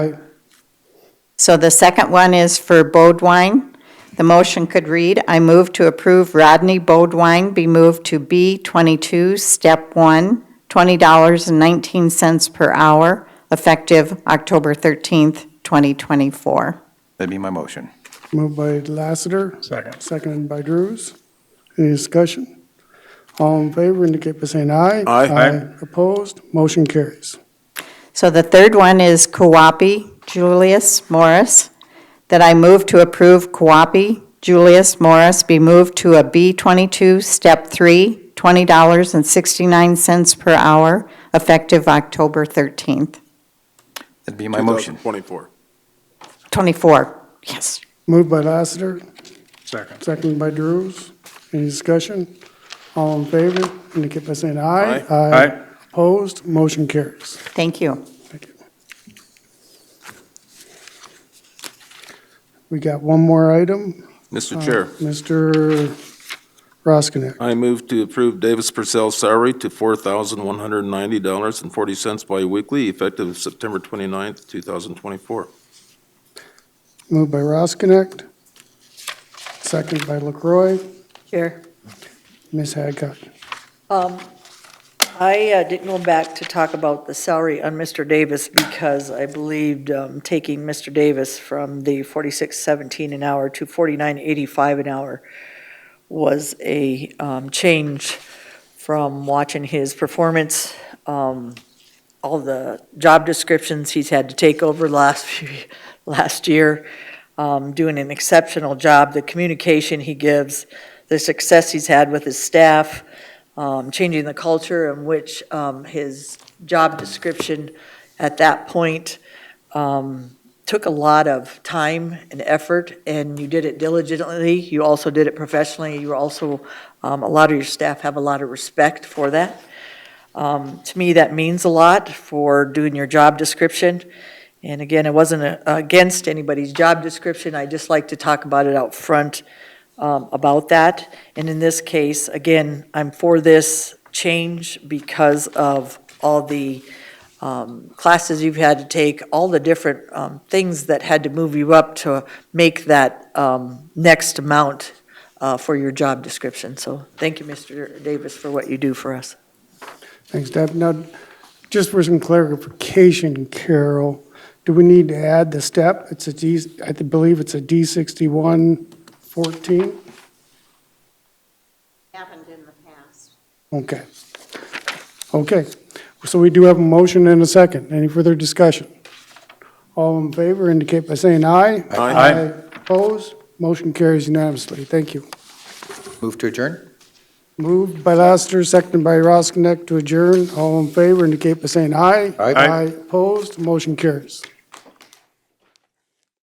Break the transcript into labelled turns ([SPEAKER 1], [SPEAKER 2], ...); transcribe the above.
[SPEAKER 1] So the second one is for Bodwine. The motion could read, I move to approve Rodney Bodwine be moved to B22, Step 1, $20.19 per hour, effective October 13th, 2024.
[SPEAKER 2] That'd be my motion.
[SPEAKER 3] Moved by Lassiter,
[SPEAKER 4] Second.
[SPEAKER 3] seconded by Drews. Any discussion? All in favor indicate by saying aye.
[SPEAKER 2] Aye.
[SPEAKER 4] Aye.
[SPEAKER 3] Opposed, motion carries.
[SPEAKER 1] So the third one is Kuwapi Julius Morris, that I move to approve Kuwapi Julius Morris be moved to a B22, Step 3, $20.69 per hour, effective October 13th.
[SPEAKER 2] That'd be my motion.
[SPEAKER 5] 2024.
[SPEAKER 1] 24, yes.
[SPEAKER 3] Moved by Lassiter,
[SPEAKER 4] Second.
[SPEAKER 3] seconded by Drews. Any discussion? All in favor indicate by saying aye.
[SPEAKER 4] Aye.
[SPEAKER 3] Opposed, motion carries.
[SPEAKER 1] Thank you.
[SPEAKER 3] Thank you. We got one more item. Uh,
[SPEAKER 5] Mr. Chair,
[SPEAKER 3] Mr. Roskinek.
[SPEAKER 5] I move to approve Davis Purcell's salary to $4,190.40 biweekly, effective September 29th, 2024.
[SPEAKER 3] Moved by Roskinek, second by LaCroy.
[SPEAKER 6] Chair,
[SPEAKER 3] Ms. Hadcock.
[SPEAKER 6] um, I uh, didn't go back to talk about the salary on Mr. Davis because I believed um, taking Mr. Davis from the 46.17 an hour to 49.85 an hour was a um, change from watching his performance, um, all the job descriptions he's had to take over last, few- last year, um, doing an exceptional job, the communication he gives, the success he's had with his staff, um, changing the culture in which um, his job description at that point um, took a lot of time and effort, and you did it diligently. You also did it professionally. You were also, um, a lot of your staff have a lot of respect for that. Um, To me, that means a lot for doing your job description. And again, it wasn't uh, against anybody's job description. I just like to talk about it out front um, about that. And in this case, again, I'm for this change because of all the um, classes you've had to take, all the different um, things that had to move you up to make that um, next amount uh, for your job description. So thank you, Mr. Davis, for what you do for us.
[SPEAKER 3] Thanks, Deb. Now, just for some clarification, Carol, do we need to add the step? It's a D, I believe it's a D sixty-one fourteen?
[SPEAKER 1] Happened in the past.
[SPEAKER 3] Okay. Okay, so we do have a motion and a second. Any further discussion? All in favor indicate by saying aye.
[SPEAKER 4] Aye.
[SPEAKER 3] Opposed? Motion carries unanimously. Thank you.
[SPEAKER 2] Move to adjourn?
[SPEAKER 3] Moved by Lassiter, seconded by Roskinek to adjourn. All in favor indicate by saying aye.
[SPEAKER 2] Aye.
[SPEAKER 4] Aye.
[SPEAKER 3] Opposed, motion carries.